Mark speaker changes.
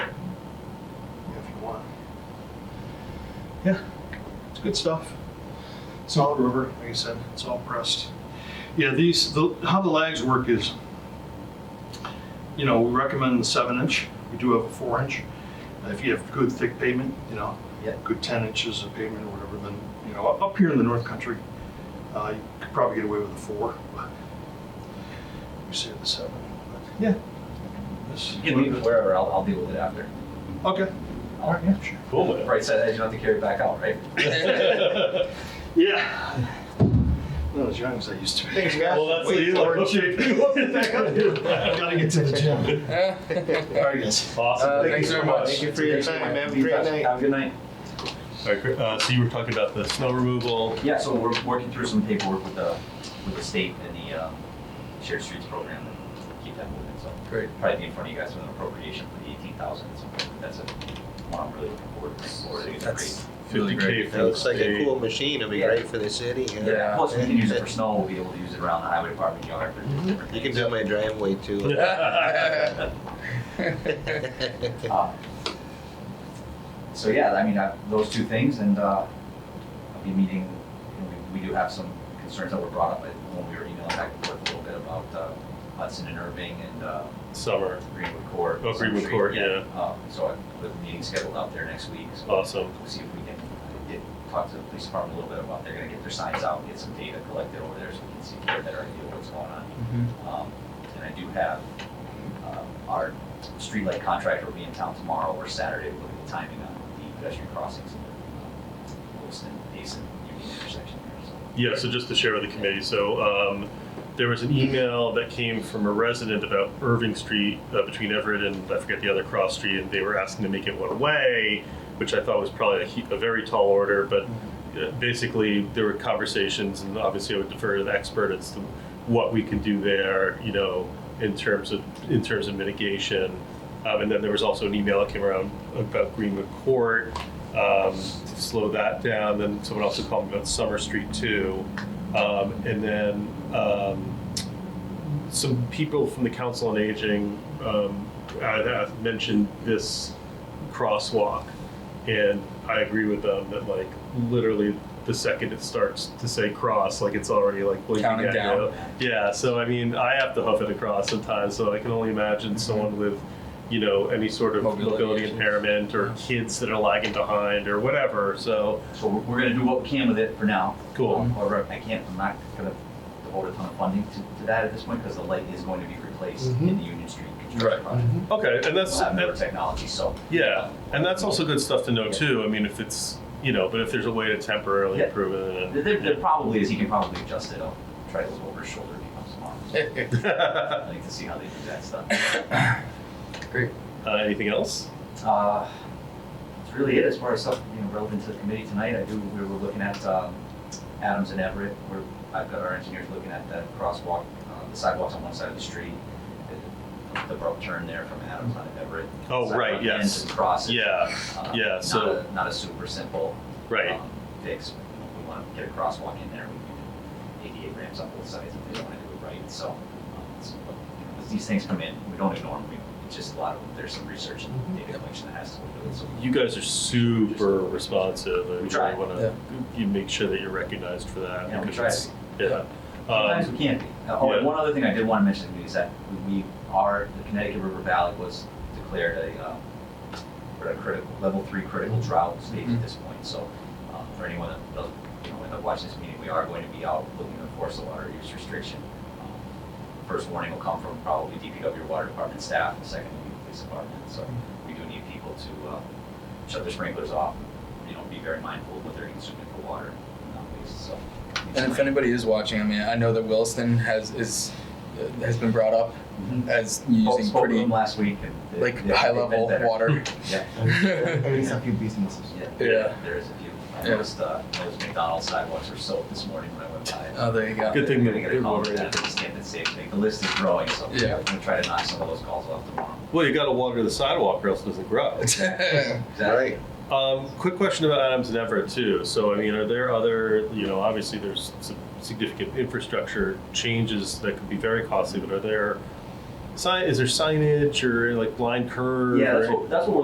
Speaker 1: Yeah, it's good stuff. Solid rubber, like I said, it's all pressed. Yeah, these, the, how the lags work is, you know, we recommend the seven inch. We do have a four inch. If you have good thick pavement, you know,
Speaker 2: Yeah.
Speaker 1: good ten inches of pavement or whatever, then, you know, up up here in the north country, uh, you could probably get away with a four, but we say the seven. but, Yeah. This-
Speaker 2: You can leave it wherever, I'll, I'll deal with it after.
Speaker 1: Okay. All right, yeah, sure.
Speaker 3: Cool, man.
Speaker 2: Right, so that you don't have to carry it back out, right?
Speaker 1: Yeah. Not as young as I used to be.
Speaker 4: Thanks, guys.
Speaker 3: Well, that's
Speaker 1: Way
Speaker 3: the-
Speaker 1: lower in shape. Gotta get to the gym. All right, guys.
Speaker 3: Awesome.
Speaker 4: Uh,
Speaker 3: Thank
Speaker 4: thanks
Speaker 3: you so
Speaker 4: very much.
Speaker 3: much.
Speaker 4: Thank you for your time. Have a
Speaker 2: You
Speaker 4: great
Speaker 2: guys
Speaker 4: night.
Speaker 2: Have a good night.
Speaker 3: All right, great. Uh, so you were talking about the snow removal.
Speaker 2: Yeah, so we're working through some paperwork with the, with the state and the um, shared streets program and keep that moving, so.
Speaker 4: Great.
Speaker 2: Probably be in front of you guys with an appropriation for the eighteen thousand, so that's a, one I'm really looking forward to. forward to. It's
Speaker 4: That's really
Speaker 3: 50K
Speaker 4: great.
Speaker 3: for
Speaker 4: That
Speaker 3: the
Speaker 4: looks like a
Speaker 3: state.
Speaker 4: cool machine. It'll be
Speaker 2: Yeah.
Speaker 4: great for the city.
Speaker 2: great. Yeah, plus we can use it for snow, we'll be able to use it around the highway department yard for different things.
Speaker 4: You can do my driveway too.
Speaker 2: Uh, So yeah, I mean, I, those two things, and uh, I'll be meeting. You know, we, we do have some concerns that were brought up when we were emailing back and forth a little bit about uh, Hudson and Irving and uh,
Speaker 3: Summer.
Speaker 2: Greenwood Court.
Speaker 3: Oh, Greenwood
Speaker 2: Century,
Speaker 3: Court,
Speaker 2: Uh, so I, the meeting's scheduled out there next week. So
Speaker 3: Awesome.
Speaker 2: we'll see if we can uh, get talk to the police department a little bit about they're going to get their signs out, get some data collected over there, so we can see get a better idea of what's going on. Um, And I do have um, our streetlight contractor will be in town tomorrow or Saturday, looking at the timing on the pedestrian crossings in the um, Wilson, Mason, Union intersection there, so.
Speaker 3: Yeah, so just to share with the committee, so um, there was an email that came from a resident about Irving Street uh, between Everett and I forget the other cross street, and they were asking to make it one way, which I thought was probably a, he- a very tall order, but uh, basically there were conversations, and obviously I would defer to the expert as to what we can do there, you know, in terms of in terms of mitigation. Um, and then there was also an email that came around about Greenwood Court um, to slow that down. Then someone also called me about Summer Street too, um, and then um, some people from the Council on Aging um, had- had mentioned this crosswalk, and I agree with them that like literally the second it starts to say cross, like it's already like blinking
Speaker 5: Counting
Speaker 3: at
Speaker 5: down.
Speaker 3: you. Yeah, so I mean, I have to huff it across sometimes, so I can only imagine someone with, you know, any sort of mobility,
Speaker 5: Mm-hmm. Mobility issues.
Speaker 3: impairment or kids that are lagging behind or whatever. So
Speaker 2: So we're, we're gonna do what we can with it for now. Um,
Speaker 3: Cool.
Speaker 2: However, I can't, I'm not gonna devote a ton of funding to, to that at this point, because the light is going to be replaced in the Union Street construction
Speaker 3: Right.
Speaker 2: project.
Speaker 3: okay, and that's
Speaker 2: We'll have newer
Speaker 3: that-
Speaker 2: technology, so.
Speaker 3: yeah, and that's also good stuff to know too. I mean, if it's you know, but if there's a way to temporarily
Speaker 2: Yeah.
Speaker 3: improve it,
Speaker 2: There,
Speaker 3: then-
Speaker 2: there there probably is, he can probably adjust it, I'll try to look over his shoulder if he comes tomorrow. I'd like to see how they do that stuff.
Speaker 3: uh, anything else?
Speaker 2: Uh, That's really it as far as stuff, you know, relevant to the committee tonight. I do, we were looking at um, Adams and Everett, where I've got our engineers looking at that crosswalk, uh, the sidewalks on one side of the street, the- the abrupt turn there from Adams on Everett.
Speaker 3: Oh,
Speaker 2: Sidewalk
Speaker 3: right, yes.
Speaker 2: ends and crosses.
Speaker 3: Yeah,
Speaker 2: Uh,
Speaker 3: yeah,
Speaker 2: not
Speaker 3: so-
Speaker 2: a- Not a super simple.
Speaker 3: Right.
Speaker 2: um, Fix. We want to get a crosswalk in there. We can do ADA ramps on both sides if they want to do it right. So, um, it's- as these things come in, we don't ignore them. We- It's just a lot of, there's some research
Speaker 3: Mm-hmm.
Speaker 2: and data collection that has to go into it. So
Speaker 3: You guys are super responsive. I
Speaker 2: We try.
Speaker 3: really want to you make sure that you're recognized for that.
Speaker 2: Yeah, we
Speaker 3: because it's- Yeah.
Speaker 2: Sometimes
Speaker 3: Um,
Speaker 2: we can't be. Uh, Oh, and
Speaker 3: yeah.
Speaker 2: one other thing I did want to mention to you is that we are, the Connecticut River Valley was declared a, um, what a critical, level three critical drought stage at this point. So um, for anyone that doesn't, you know, end up watching this meeting, we are going to be out looking to enforce the water use restriction. Um, First warning will come from probably DPW Water Department staff, and second will be the police department. So we do need people to uh, shut their sprinklers off, you know, be very mindful of what they're consuming for water and not waste, so.
Speaker 5: And if anybody is watching, I mean, I know that Williston has is uh, has been brought up
Speaker 2: Mhm.
Speaker 5: as
Speaker 2: Spoke-
Speaker 5: using
Speaker 2: spoke with
Speaker 5: pretty
Speaker 2: them last week. and they-
Speaker 5: like
Speaker 2: they-
Speaker 5: high
Speaker 2: they've been
Speaker 5: level
Speaker 2: better.
Speaker 5: water.
Speaker 2: Yeah,
Speaker 5: yeah,
Speaker 6: There's a few businesses.
Speaker 2: yeah,
Speaker 5: Yeah.
Speaker 2: There is a few. I
Speaker 5: Yeah.
Speaker 2: noticed uh, those McDonald's sidewalks were soaked this morning when I went by.
Speaker 5: oh, there you go.
Speaker 3: Good thing
Speaker 2: They're
Speaker 3: that
Speaker 2: gonna get
Speaker 3: they're
Speaker 2: a call for
Speaker 3: already-
Speaker 2: that, just kept it safe. Like, The list is growing, so I'm
Speaker 5: Yeah.
Speaker 2: gonna try to knock some of those calls off tomorrow.
Speaker 3: Well, you got to water the sidewalk, or else it doesn't grow.
Speaker 2: Exactly.
Speaker 4: Right.
Speaker 3: Um, quick question about Adams and Everett too. So, I mean, are there other, you know, obviously there's some significant infrastructure changes that could be very costly, but are there, sign, is there signage or like blind curve?
Speaker 2: Yeah,
Speaker 3: or
Speaker 2: that's what, that's what we're